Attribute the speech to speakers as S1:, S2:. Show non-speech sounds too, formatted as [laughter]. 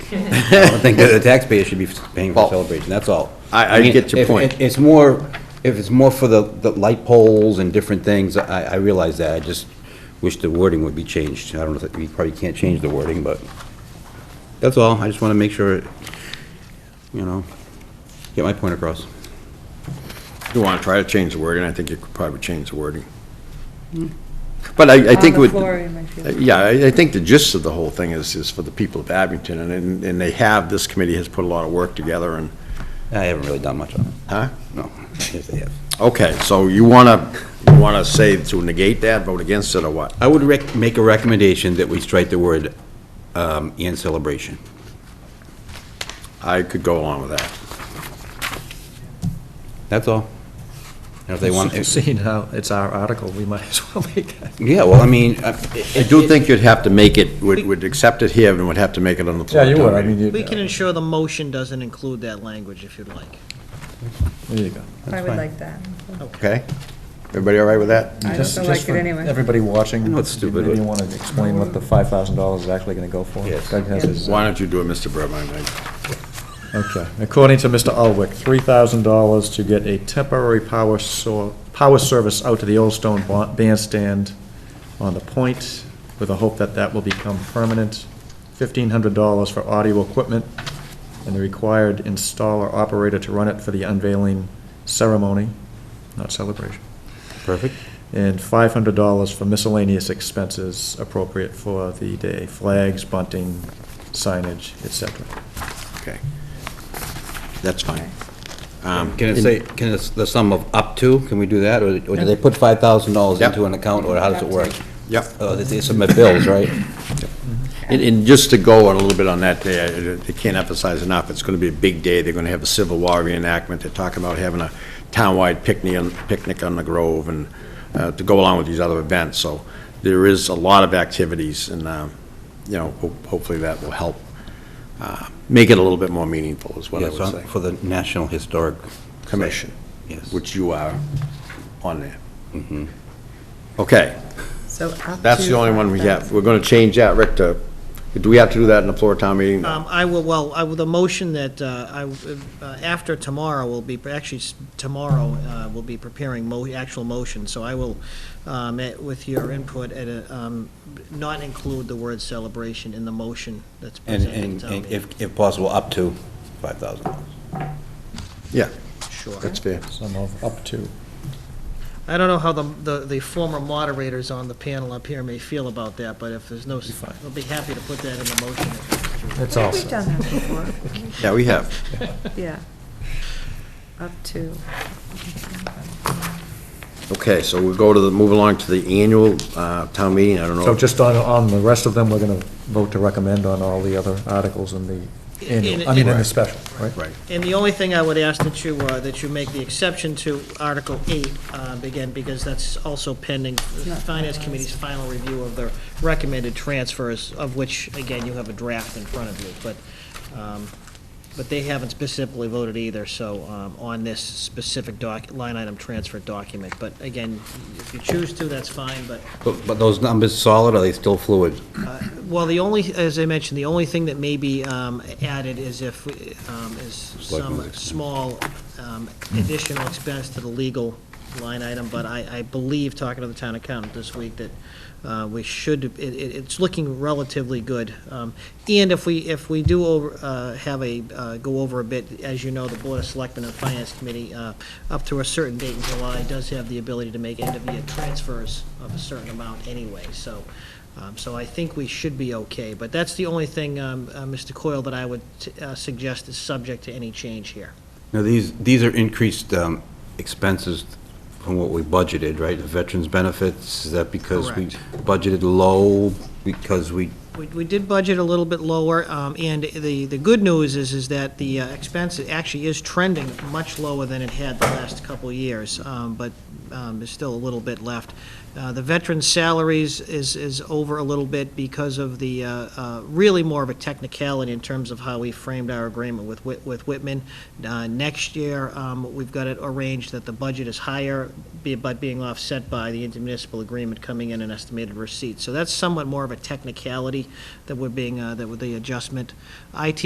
S1: I don't think that the taxpayer should be paying for
S2: Well,
S1: celebration, that's all.
S2: I- I
S1: mean,
S2: get your
S1: if-
S2: point.
S1: it- It's more, if it's more for the, the light poles and different things, I, I realize that, I just wish the wording would be changed. I don't know, if we probably can't change the wording, but that's all, I just want to make sure, you know, get my point across.
S2: If you want to try to change the wording, I think you could probably change the wording. But I, I think it
S3: Hmm. On the
S2: would. uh,
S3: floor, in my field.
S2: Yeah, I, I think the gist of the whole thing is, is for the people of Abington, and- and, and they have, this committee has put a lot of work together, and,
S1: I haven't really done much on it,
S2: huh?
S1: no. Yes, I have.
S2: Okay, so you want to, you want to say to negate that, vote against it, or what?
S1: I would rec, make a recommendation that we strike the word, um, and celebration.
S2: I could go along with that.
S1: That's all. And if they want,
S4: Seeing how [laughs] it's our article, we might as well [laughs] make that.
S1: yeah, well, I mean, uh, I-
S2: I do think you'd have to make it, would, would accept it here, and would have to make it on the floor.
S5: Yeah, you would, I mean, you,
S6: We can
S5: there
S6: ensure the motion doesn't include that language if you'd like.
S5: you go.
S3: I would
S1: fine.
S3: like that.
S2: Okay? Everybody all right with that?
S3: I
S5: Just-
S3: don't
S5: just
S3: like it
S5: for
S3: anyway.
S5: Everybody watching.
S1: I know it's stupid,
S5: Maybe
S1: but-
S5: you want to explain what the five thousand dollars is actually going to go for?
S1: Yes.
S5: Doug has his, uh,
S2: Why don't you do it, Mr. Burbine? I-
S5: Okay, according to Mr. Ulwick, three thousand dollars to get a temporary power sor, power service out to the Old Stone ba- Bandstand on the point, with the hope that that will become permanent. Fifteen hundred dollars for audio equipment, and the required installer operator to run it for the unveiling ceremony, not celebration.
S1: Perfect.
S5: and five hundred dollars for miscellaneous expenses appropriate for the day, flags, bunting, signage, et cetera.
S2: Okay. That's fine. Um,
S1: Can it say, can it, the sum of up to, can we do that, or or do they put five thousand dollars
S2: Yep.
S1: into an account, or how does it work?
S2: Yep.
S1: Oh, they- they submit bills, right?
S2: And, and just to go on a little bit on that day, I I can't emphasize enough, it's gonna be a big day, they're gonna have a Civil War reenactment, they're talking about having a townwide picnic, on- picnic on the Grove, and, uh, to go along with these other events, so there is a lot of activities, and, um, you know, ho- hopefully that will help, uh, make it a little bit more meaningful, is what I
S1: Yes,
S2: would say.
S1: on- for the National Historic,
S2: Commission,
S1: yes. Mm-hmm.
S2: which you are on there. Okay,
S3: So up
S2: that's
S3: to
S2: the only one we have,
S3: 5,000.
S2: we're gonna change that, Rick, to, do we have to do that in the floor town meeting?
S6: Um, I will, well, I will, the motion that, uh, I, uh, after tomorrow will be, actually, s- tomorrow, uh, will be preparing mo, actual motion, so I will, um, eh, with your input, at a, um, not include the word celebration in the motion that's
S1: And,
S6: presented.
S1: and
S6: at town
S1: and
S6: meeting.
S1: if, if possible, up to five thousand dollars.
S2: Yeah,
S6: Sure.
S2: that's fair.
S5: Sum of up to.
S6: I don't know how the, the, the former moderators on the panel up here may feel about that, but if there's no, s-
S5: fine.
S6: I'll be happy to put that in the motion.
S5: That's
S3: Yeah, We've done that before, [laughs]
S2: Yeah, we have.
S3: yeah. Up to,
S2: Okay, so we'll go to the, move along to the annual uh, town meeting, I don't know.
S5: So just on, on the rest of them, we're going to vote to recommend on all the other articles in the annual, I mean, in the special, right?
S2: Right,
S6: And the only thing I would ask that you, uh, that you make the exception to Article 8, uh, again, because that's also pending the
S3: not
S6: Finance
S3: finalized.
S6: Committee's final review of the recommended transfers, of which, again, you have a draft in front of you, but, um, but they haven't specifically voted either, so um, on this specific doc, line item transfer document. But again, if you choose to, that's fine, but
S1: But, but those numbers solid, or are they still fluid?
S6: well, the only, as I mentioned, the only thing that may be um, added is if, um, is
S1: Selectmen's
S6: some
S1: expense.
S6: small um, additional expense to the legal line item, but I, I believe, talking to the town accountant this week, that uh, we should, it, it- it's looking relatively good. Um, And if we, if we do over, uh, have a, uh, go over a bit, as you know, the Board of Selectmen and Finance Committee, uh, up to a certain date in July, does have the ability to make end-of-year transfers of a certain amount anyway, so, um, So I think we should be okay, but that's the only thing, um, uh, Mr. Coyle, that I would uh, suggest is subject to any change here.
S1: Now, these, these are increased um, expenses from what we budgeted, right? The Veterans benefits, is that because we budgeted low, because we
S6: We- We did budget a little bit lower, um, and the, the good news is, is that the uh, expense actually is trending much lower than it had the last couple of years, um, but um, there's still a little bit left. Uh, The veteran salaries is, is over a little bit because of the, uh, uh, really more of a technicality in terms of how we framed our agreement with Whit- with Whitman. Uh, Next year, um, we've got it arranged that the budget is higher, be- but being offset by the intermunicipal agreement coming in and estimated receipts. So that's somewhat more of a technicality that we're being, uh, that with the adjustment. IT